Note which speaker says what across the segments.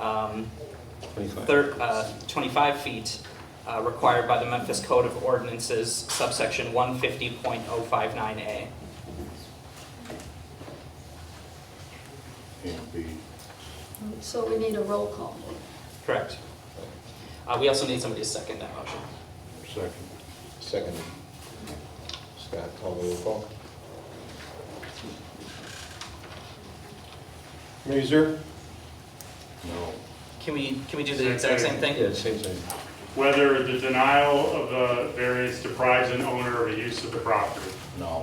Speaker 1: um,
Speaker 2: 25.
Speaker 1: thir- uh, 25 feet uh, required by the Memphis Code of Ordinances subsection 150.059A.
Speaker 3: and B.
Speaker 4: So we need a roll call.
Speaker 1: Correct. Uh, We also need somebody to second that motion.
Speaker 3: Second.
Speaker 2: Second. Scott, call the roll call.
Speaker 5: Mazer,
Speaker 3: No.
Speaker 1: Can we, can we do the exact same thing?
Speaker 2: Yeah, same thing.
Speaker 6: whether the denial of the variance deprives an owner of a use of the property,
Speaker 3: No.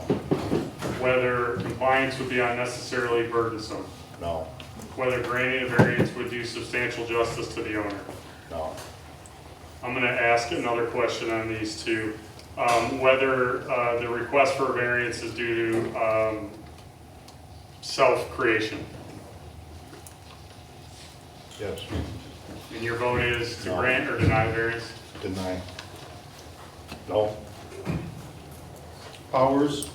Speaker 6: whether compliance would be unnecessarily burdensome,
Speaker 3: No.
Speaker 6: whether granting a variance would do substantial justice to the owner.
Speaker 3: No.
Speaker 6: I'm going to ask another question on these two. Um, Whether uh, the request for a variance is due to um, self-creation.
Speaker 3: Yes.
Speaker 6: And your vote is to
Speaker 3: No.
Speaker 6: grant or deny variance?
Speaker 3: Deny. No.
Speaker 5: Powers,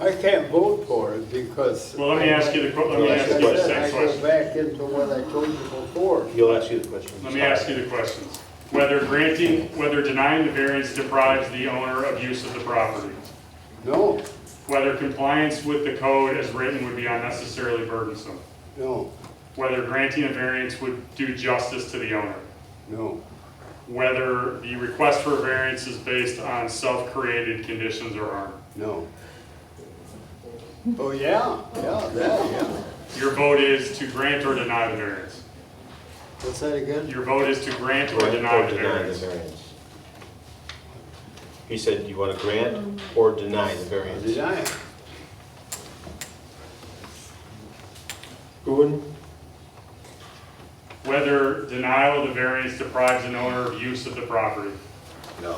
Speaker 7: I can't vote for it because.
Speaker 6: Well, let me ask you the, que- let me
Speaker 7: Like I
Speaker 6: ask you the
Speaker 7: said,
Speaker 6: same
Speaker 7: I go
Speaker 6: question.
Speaker 7: back into what I told you before.
Speaker 2: He'll ask you the question.
Speaker 6: Let me ask you the questions. Whether granting, whether denying the variance deprives the owner of use of the property.
Speaker 7: No,
Speaker 6: Whether compliance with the code as written would be unnecessarily burdensome.
Speaker 7: no,
Speaker 6: Whether granting a variance would do justice to the owner.
Speaker 7: no,
Speaker 6: Whether the request for a variance is based on self-created conditions or harm.
Speaker 7: no. Oh, yeah, yeah, that, yeah.
Speaker 6: Your vote is to grant or deny the variance.
Speaker 7: What's that again?
Speaker 6: Your vote is to grant or deny the variance.
Speaker 2: variance. He said, you want to grant or deny the variance?
Speaker 7: Deny it.
Speaker 2: Gordon?
Speaker 6: Whether denial of the variance deprives an owner of use of the property.
Speaker 7: No,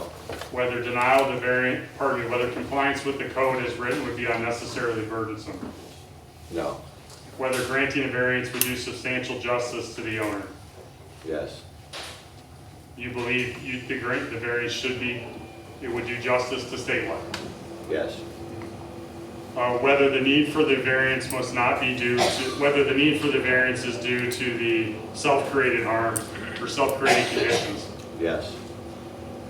Speaker 6: whether denial of the variant, pardon me, whether compliance with the code as written would be unnecessarily burdensome,
Speaker 7: no,
Speaker 6: whether granting a variance would do substantial justice to the owner.
Speaker 7: yes,
Speaker 6: You believe you, the grant, the variance should be, it would do justice to statewide.
Speaker 7: yes,
Speaker 6: Uh, whether the need for the variance must not be due to, whether the need for the variance is due to the self-created harm or self-created conditions.
Speaker 7: yes,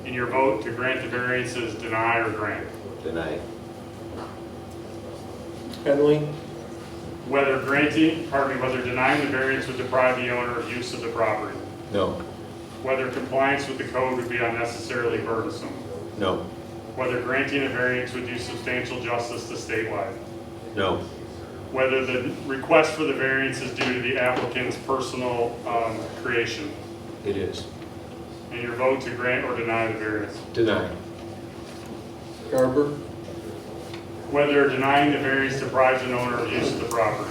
Speaker 6: In your vote to grant the variance is deny or grant.
Speaker 7: deny.
Speaker 2: Henley?
Speaker 6: Whether granting, pardon me, whether denying the variance would deprive the owner of use of the property.
Speaker 2: No,
Speaker 6: whether compliance with the code would be unnecessarily burdensome,
Speaker 2: no,
Speaker 6: whether granting a variance would do substantial justice to statewide,
Speaker 2: no,
Speaker 6: whether the request for the variance is due to the applicant's personal um, creation,
Speaker 2: it is.
Speaker 6: and your vote to grant or deny the variance,
Speaker 2: Deny.
Speaker 5: Garber,
Speaker 6: whether denying the variance deprives an owner of use of the property.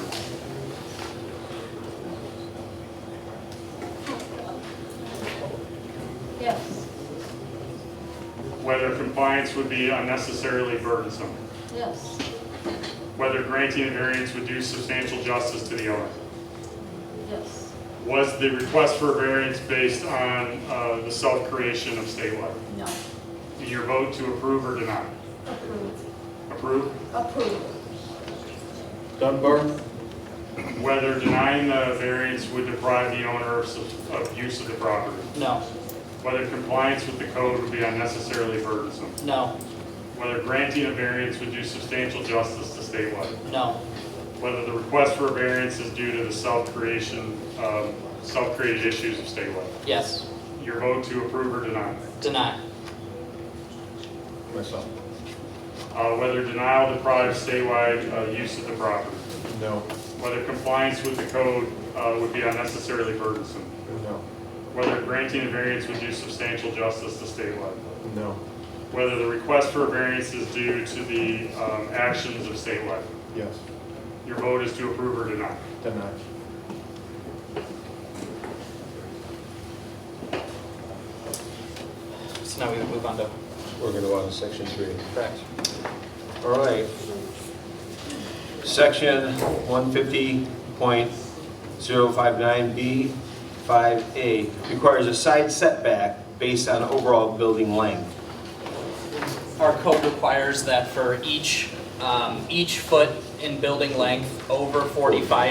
Speaker 4: Yes,
Speaker 6: Whether compliance would be unnecessarily burdensome,
Speaker 4: yes,
Speaker 6: whether granting a variance would do substantial justice to the owner.
Speaker 4: yes,
Speaker 6: Was the request for a variance based on uh, the self-creation of statewide?
Speaker 4: no,
Speaker 6: And your vote to approve or deny?
Speaker 4: approve,
Speaker 6: Approve?
Speaker 4: approve,
Speaker 5: Dunbar,
Speaker 6: Whether denying the variance would deprive the owner of, sub- of use of the property.
Speaker 1: No,
Speaker 6: Whether compliance with the code would be unnecessarily burdensome.
Speaker 1: no,
Speaker 6: Whether granting a variance would do substantial justice to statewide.
Speaker 1: no,
Speaker 6: Whether the request for a variance is due to the self-creation, um, self-created issues of statewide.
Speaker 1: yes,
Speaker 6: Your vote to approve or deny.
Speaker 1: deny,
Speaker 2: Myself.
Speaker 6: Uh, whether denial deprives statewide, uh, use of the property.
Speaker 5: no,
Speaker 6: Whether compliance with the code, uh, would be unnecessarily burdensome.
Speaker 5: no,
Speaker 6: whether granting a variance would do substantial justice to statewide,
Speaker 5: no,
Speaker 6: whether the request for a variance is due to the um, actions of statewide.
Speaker 5: yes,
Speaker 6: Your vote is to approve or deny.
Speaker 5: deny.
Speaker 1: so now we move on to,
Speaker 2: We're going to go on to section three.
Speaker 1: correct.
Speaker 2: All right. Section 150.059B5A requires a side setback based on overall building length.
Speaker 1: Our code requires that for each, um, each foot in building length over 45